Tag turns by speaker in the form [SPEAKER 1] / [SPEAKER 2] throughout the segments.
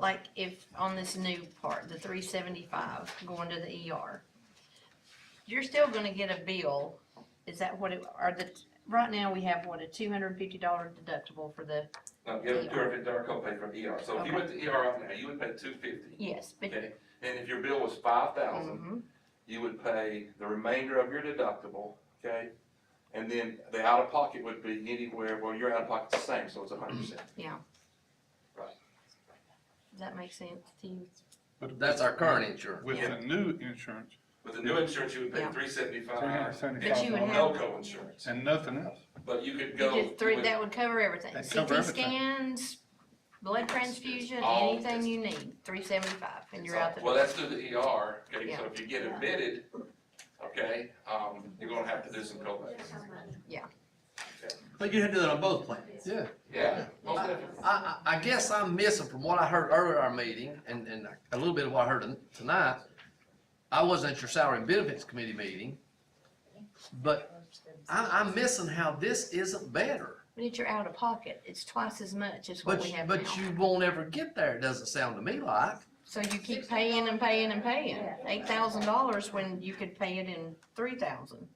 [SPEAKER 1] like if on this new part, the three seventy-five going to the ER, you're still gonna get a bill. Is that what it, are the, right now we have what, a two hundred and fifty dollar deductible for the,
[SPEAKER 2] No, you have a two hundred fifty dollar copay from ER, so if you went to ER right now, you would pay two fifty,
[SPEAKER 1] yes, but.
[SPEAKER 2] okay? And if your bill was five thousand,
[SPEAKER 1] Mhm.
[SPEAKER 2] you would pay the remainder of your deductible, okay? And then the out-of-pocket would be anywhere, well, your out-of-pocket's the same, so it's a hundred percent.
[SPEAKER 1] Does that make sense to you?
[SPEAKER 3] But
[SPEAKER 4] That's our current insurance.
[SPEAKER 3] With the new insurance
[SPEAKER 2] With the new insurance, you would pay
[SPEAKER 1] Mm-hmm. Yeah.
[SPEAKER 2] three seventy-five,
[SPEAKER 1] But you would
[SPEAKER 3] $375
[SPEAKER 1] have-
[SPEAKER 2] no co-insurance,
[SPEAKER 3] and nothing else.
[SPEAKER 2] but you could
[SPEAKER 1] You
[SPEAKER 2] go.
[SPEAKER 1] get three,
[SPEAKER 2] with-
[SPEAKER 1] that would cover everything.
[SPEAKER 3] That'd cover
[SPEAKER 1] CT
[SPEAKER 3] everything.
[SPEAKER 1] scans, blood transfusion,
[SPEAKER 2] all-
[SPEAKER 1] anything you need, three seventy-five, and you're
[SPEAKER 2] So-
[SPEAKER 1] out the
[SPEAKER 2] Well,
[SPEAKER 1] door.
[SPEAKER 2] that's through the ER, okay, so if you get
[SPEAKER 5] Yeah.
[SPEAKER 2] admitted, okay, um, you're gonna have to do some co-pays.
[SPEAKER 4] But you had to do that on both plans.
[SPEAKER 3] Yeah.
[SPEAKER 2] Yeah, most
[SPEAKER 4] I,
[SPEAKER 2] definitely.
[SPEAKER 4] I, I guess I'm missing from what I heard earlier in our meeting and, and a little bit of what I heard tonight. I wasn't at your salary and benefits committee meeting, but I, I'm missing how this isn't better.
[SPEAKER 1] But it's your out of pocket, it's twice as much as what
[SPEAKER 4] But,
[SPEAKER 1] we
[SPEAKER 4] you-
[SPEAKER 1] have now.
[SPEAKER 4] but you won't ever get there, it doesn't sound to me like.
[SPEAKER 1] So you keep paying and paying and paying,
[SPEAKER 5] Yeah.
[SPEAKER 1] eight thousand dollars when you could pay it in three thousand.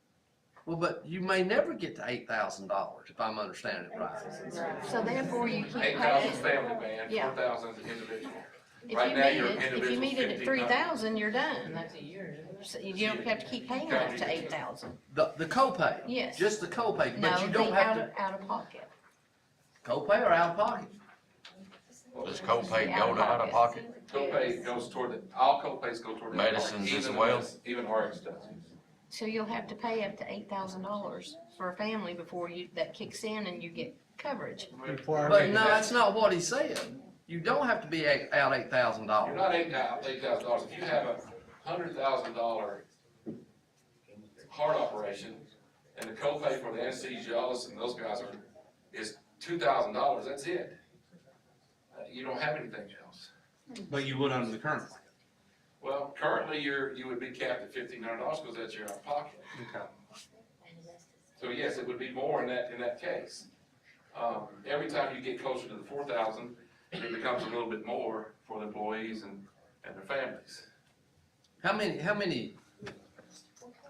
[SPEAKER 4] Well, but you may never get to eight thousand dollars, if I'm understanding it right.
[SPEAKER 1] So therefore you keep
[SPEAKER 2] Eight thousand
[SPEAKER 1] paying.
[SPEAKER 2] family man,
[SPEAKER 1] Yeah.
[SPEAKER 2] four thousand is individual.
[SPEAKER 1] If you
[SPEAKER 2] Right now,
[SPEAKER 1] meet
[SPEAKER 2] your
[SPEAKER 1] it, if you
[SPEAKER 2] individual's
[SPEAKER 1] meet it at three
[SPEAKER 2] 15,000.
[SPEAKER 1] thousand, you're done.
[SPEAKER 6] That's a year.
[SPEAKER 1] So You don't have to keep paying up to eight thousand.
[SPEAKER 4] The, the copay.
[SPEAKER 1] Yes.
[SPEAKER 4] Just the copay,
[SPEAKER 1] No,
[SPEAKER 4] but you don't
[SPEAKER 1] the
[SPEAKER 4] have
[SPEAKER 1] out
[SPEAKER 4] to,
[SPEAKER 1] of, out of pocket.
[SPEAKER 4] copay or out of pocket?
[SPEAKER 7] Does copay
[SPEAKER 1] Yeah,
[SPEAKER 7] go to out of pocket?
[SPEAKER 2] Copay goes toward, the all copays go toward. the
[SPEAKER 7] Medicines
[SPEAKER 2] RX,
[SPEAKER 7] as
[SPEAKER 2] even
[SPEAKER 7] well?
[SPEAKER 2] the- Even RX does.
[SPEAKER 1] So you'll have to pay up to eight thousand dollars for a family before you, that kicks in and you get coverage.
[SPEAKER 4] But no, that's not what he said. You don't have to be eight- out eight thousand
[SPEAKER 2] You're
[SPEAKER 4] dollars.
[SPEAKER 2] not eight thousand, eight thousand dollars, if you have a hundred thousand dollar heart operation, and the copay for the anesthesiologist and those guys are, is two thousand dollars, that's it. Uh, You don't have anything else.
[SPEAKER 4] But you would under the current plan.
[SPEAKER 2] Well, currently, you're, you would be capped at fifteen hundred dollars, because that's your out of pocket. So yes, it would be more in that, in that case. Um, every time you get closer to the four thousand, it becomes a little bit more for the employees and, and their families.
[SPEAKER 4] How many, how many,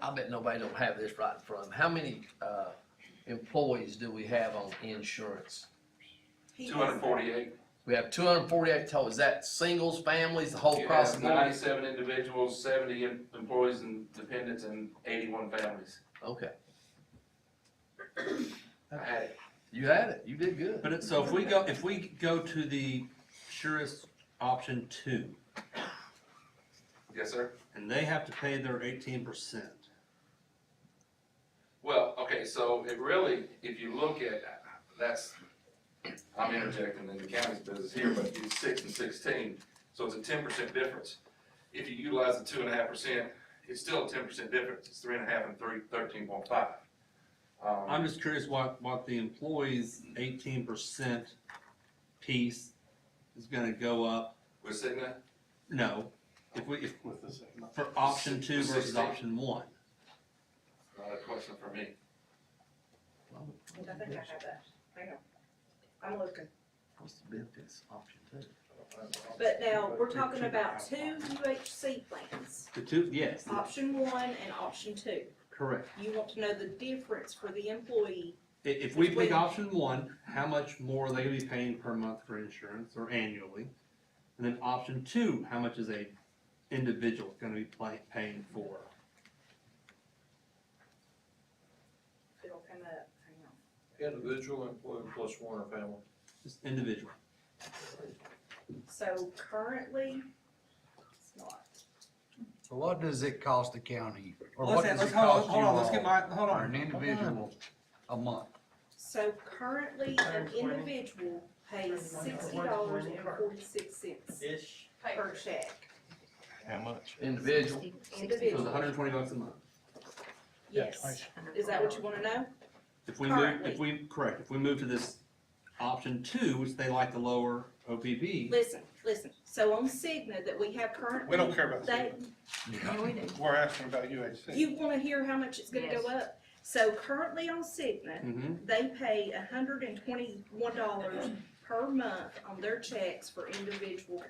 [SPEAKER 4] I bet nobody don't have this right in front of them. How many, uh, employees do we have on insurance?
[SPEAKER 2] Two hundred forty-eight,
[SPEAKER 4] We have two hundred and forty-eight total. Is that singles, families, the whole
[SPEAKER 2] you
[SPEAKER 4] cross
[SPEAKER 2] have
[SPEAKER 4] the board?
[SPEAKER 2] ninety-seven individuals, seventy em- employees and dependents, and eighty-one families.
[SPEAKER 4] Okay,
[SPEAKER 2] I had it.
[SPEAKER 4] you had it. You did good.
[SPEAKER 8] But it, so if we go, if we go to the surest option two,
[SPEAKER 2] Yes, sir?
[SPEAKER 8] and they have to pay their eighteen percent.
[SPEAKER 2] Well, okay, so it really, if you look at, that's, I'm interjecting in the county's business here, but it's six and sixteen, so it's a ten percent difference. If you utilize the two and a half percent, it's still a ten percent difference, it's three and a half and three, thirteen point five.
[SPEAKER 8] I'm
[SPEAKER 2] Um,
[SPEAKER 8] just curious what, what the employee's eighteen percent piece is gonna go up,
[SPEAKER 2] with Cigna,
[SPEAKER 8] no, if we, if, for option two versus option one.
[SPEAKER 2] not Uh, a question for me.
[SPEAKER 5] I think I have that. Hang on. I'm looking.
[SPEAKER 4] What's the benefits option two?
[SPEAKER 5] But now, we're talking about two UHC plans,
[SPEAKER 8] The two, yes,
[SPEAKER 5] option one and option two.
[SPEAKER 8] correct.
[SPEAKER 5] You want to know the difference for the employee.
[SPEAKER 8] I- if we
[SPEAKER 5] Wait.
[SPEAKER 8] pick option one, how much more are they gonna be paying per month for insurance or annually? And then option two, how much is a individual gonna be pay, paying for?
[SPEAKER 5] It'll come up, hang on.
[SPEAKER 9] Individual employee plus one or family.
[SPEAKER 8] Just individual.
[SPEAKER 5] So currently, it's not.
[SPEAKER 9] So what does it cost the county? Or
[SPEAKER 8] Let's-
[SPEAKER 9] what does
[SPEAKER 8] let's-
[SPEAKER 9] it
[SPEAKER 8] hold on,
[SPEAKER 9] cost you
[SPEAKER 8] hold on, let's get
[SPEAKER 9] all
[SPEAKER 8] my- hold on.
[SPEAKER 9] for An individual a month.
[SPEAKER 5] So currently, an individual pays sixty dollars and forty-six cents per check.
[SPEAKER 7] How much?
[SPEAKER 4] Individual.
[SPEAKER 1] Sixty-
[SPEAKER 8] It was hundred and twenty bucks a month.
[SPEAKER 5] Yes. Is that what you want to know?
[SPEAKER 8] If we move, if we, correct, if we move to this option two, which they like the lower OPP,
[SPEAKER 5] Listen, listen. So on Cigna that we have currently.
[SPEAKER 3] We don't care about
[SPEAKER 5] They,
[SPEAKER 1] Yeah, we do.
[SPEAKER 3] We're asking about UHC.
[SPEAKER 5] you want to hear how much it's going to
[SPEAKER 1] Yes.
[SPEAKER 5] go up? So currently on Cigna,
[SPEAKER 8] hmm
[SPEAKER 5] they pay hundred and twenty-one dollars per month on their checks for individual